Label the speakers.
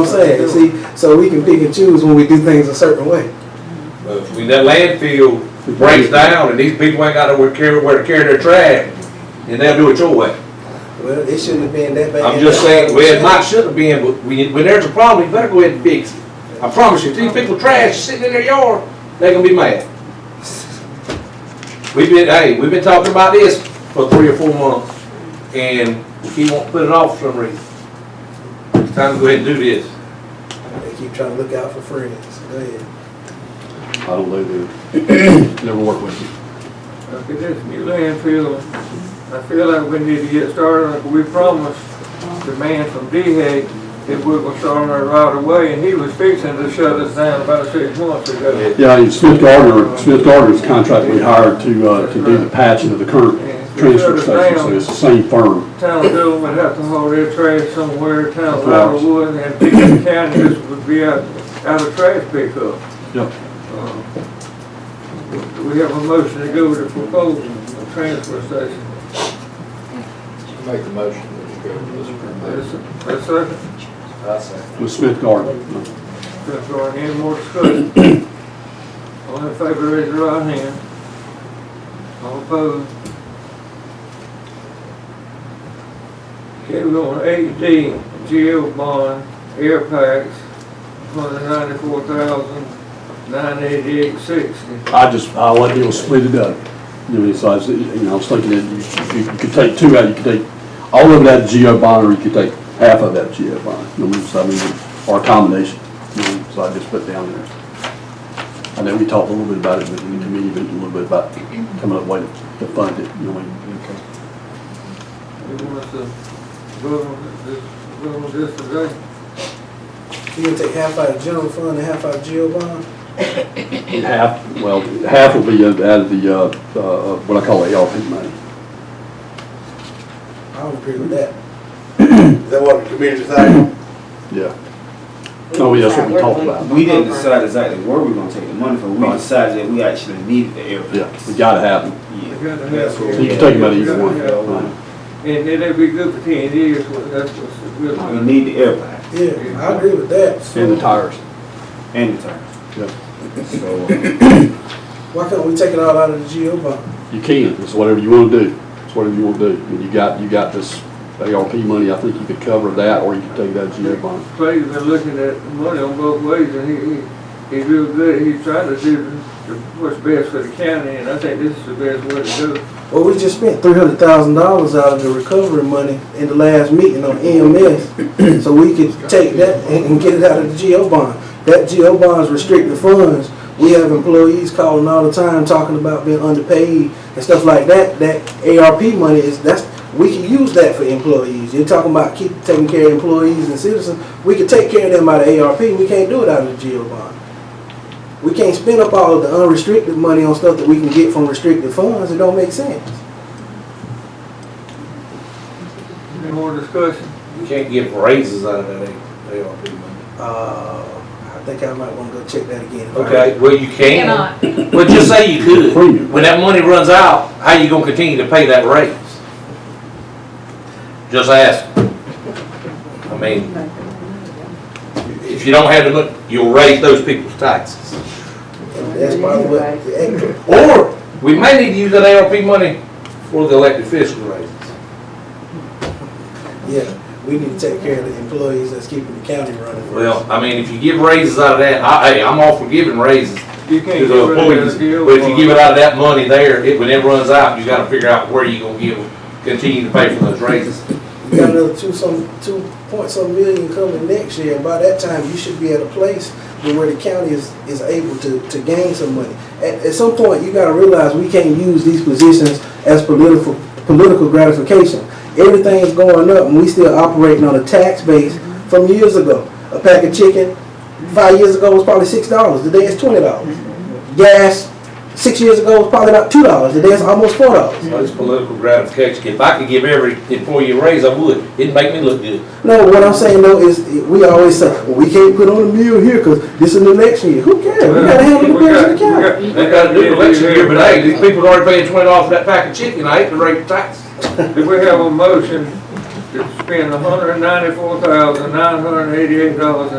Speaker 1: I'm saying, see, so we can pick and choose when we do things a certain way.
Speaker 2: But When that landfill breaks down and these people ain't got nowhere to carry, where to carry their trash, then they'll do it your way.
Speaker 1: Well, it shouldn't have been that bad.
Speaker 2: I'm just saying, well, it might should have been, but when, when there's a problem, you better go ahead and fix it. I promise you, if these people trash sitting in their yard, they gonna be mad. We've been, hey, we've been talking about this for three or four months, and he won't put it off for some reason. It's time to go ahead and do this.
Speaker 1: They keep trying to look out for friends. Go ahead.
Speaker 3: I don't know, dude. Never worked with you.
Speaker 4: Look at this new landfill. I feel like we need to get started, like we promised the man from DHEC that we were starting it right away, and he was fixing to shut us down about six months ago.
Speaker 3: Yeah, and Smith Gardner, Smith Gardner's contract we hired to, uh, to do the patching of the current transfer station, so it's the same firm.
Speaker 4: Town of Dillon would have to haul their trash somewhere, town of Laura would, and Pekin County just would be out, out of trash pickup.
Speaker 3: Yep.
Speaker 4: Uh, We have a motion to go with the proposal, the transfer station.
Speaker 5: Make the motion that you go to this permit.
Speaker 4: Is there a second?
Speaker 3: With Smith Gardner.
Speaker 4: If there aren't any more discussion, all in favor, raise your right hand. All opposed? Okay, we're on eight D, jail bond, air packs, one hundred ninety-four thousand, nine eighty-eight sixty.
Speaker 3: I just, I let people split it up. You know, so I was, you know, I was thinking that you, you could take two out, you could take all of that geo bond, or you could take half of that geo bond. You know, so I mean, or a combination, you know, so I just put down there. I know we talked a little bit about it in the committee, but a little bit about coming up with to fund it, you know. and-
Speaker 4: We want us to vote on this, vote on this today.
Speaker 1: You gonna take half out of general fund and half out of jail bond?
Speaker 3: Half, well, half will be out of the, uh, uh, what I call ARP money.
Speaker 1: I don't agree with that.
Speaker 6: Is that what the committee decided?
Speaker 3: Yeah. Oh, yeah, that's what we talked about.
Speaker 7: We didn't decide exactly where we are gonna take the money from, we decided that we actually needed the
Speaker 3: Yeah,
Speaker 7: airplanes.
Speaker 3: we gotta have them.
Speaker 7: Yeah.
Speaker 4: We gotta have-
Speaker 7: That's what
Speaker 3: You
Speaker 7: we-
Speaker 3: can take them out of either one. Right.
Speaker 4: And it'd be good for ten years, what- that's what's good.
Speaker 7: We need the airplanes
Speaker 1: Yeah, I agree with that.
Speaker 3: And the tires.
Speaker 7: and the tires.
Speaker 3: Yeah.
Speaker 7: So, uh,
Speaker 1: Why can't we take it all out of the jail bond?
Speaker 3: You can, it's whatever you wanna do. It's whatever you wanna do. And you got, you got this ARP money, I think you could cover that, or you could take that GO bond.
Speaker 4: Clay's been looking at money on both ways, and he, he, he real good, he's trying to do the- what's best for the county, and I think this is the best way to do it.
Speaker 1: Well, we just spent three hundred thousand dollars out of the recovery money in the last meeting on EMS. So we could take that and and get it out of the jail bond. That jail bond's restricted funds. We have employees calling all the time, talking about being underpaid and stuff like that. That ARP money is, that's, we can use that for employees. You're talking about keep taking care of employees and citizens. We could take care of them out of ARP. We can't do it out of the jail bond. We can't spend up all of the unrestricted money on stuff that we can get from restricted funds. It don't make sense.
Speaker 4: Any more discussion?
Speaker 2: You can't give raises out of that ARP money.
Speaker 1: Uh, I think I might wanna go check that again.
Speaker 2: Okay, well, you can.
Speaker 8: Cannot.
Speaker 2: Well, just say you could.
Speaker 3: Premium.
Speaker 2: When that money runs out, how you gonna continue to pay that raise? Just ask. I mean, if you don't have the money, you'll raise those people's taxes.
Speaker 1: That's probably what, the extra-
Speaker 2: Or, we may need to use that ARP money for the elected official raises.
Speaker 1: yeah, we need to take care of the employees that's keeping the county running.
Speaker 2: Well, I mean, if you give raises out of that, I, hey, I'm all for giving raises
Speaker 4: You
Speaker 2: to
Speaker 4: can't get
Speaker 2: the
Speaker 4: rid of
Speaker 2: employees,
Speaker 4: the deal.
Speaker 2: but if you give it out of that money there, it, when it runs out, you gotta figure out where you gonna give, continue to pay for those raises.
Speaker 1: You got another two some, two point some million coming next year, and by that time, you should be at a place to where the county is, is able to, to gain some money. At, at some point, you gotta realize we can't use these positions as political, political gratification. Everything is going up, and we still operating on a tax base from years ago. A pack of chicken, five years ago was probably six dollars, today it's twenty dollars. Gas, six years ago was probably about two dollars, today it's almost four dollars.
Speaker 2: Well, It's political gratification. If I could give every employee a raise, I would. It'd make me look good.
Speaker 1: No, what I'm saying though is, we always say, well, we can't put on a meal here because this is an election year. Who cares? We gotta handle the bills in the county.
Speaker 2: They got a new election here, but hey, these people are already paying twenty dollars for that pack of chicken. I hate to raise the taxes.
Speaker 4: Do we have a motion to spend hundred ninety-four thousand, nine hundred eighty-eight dollars and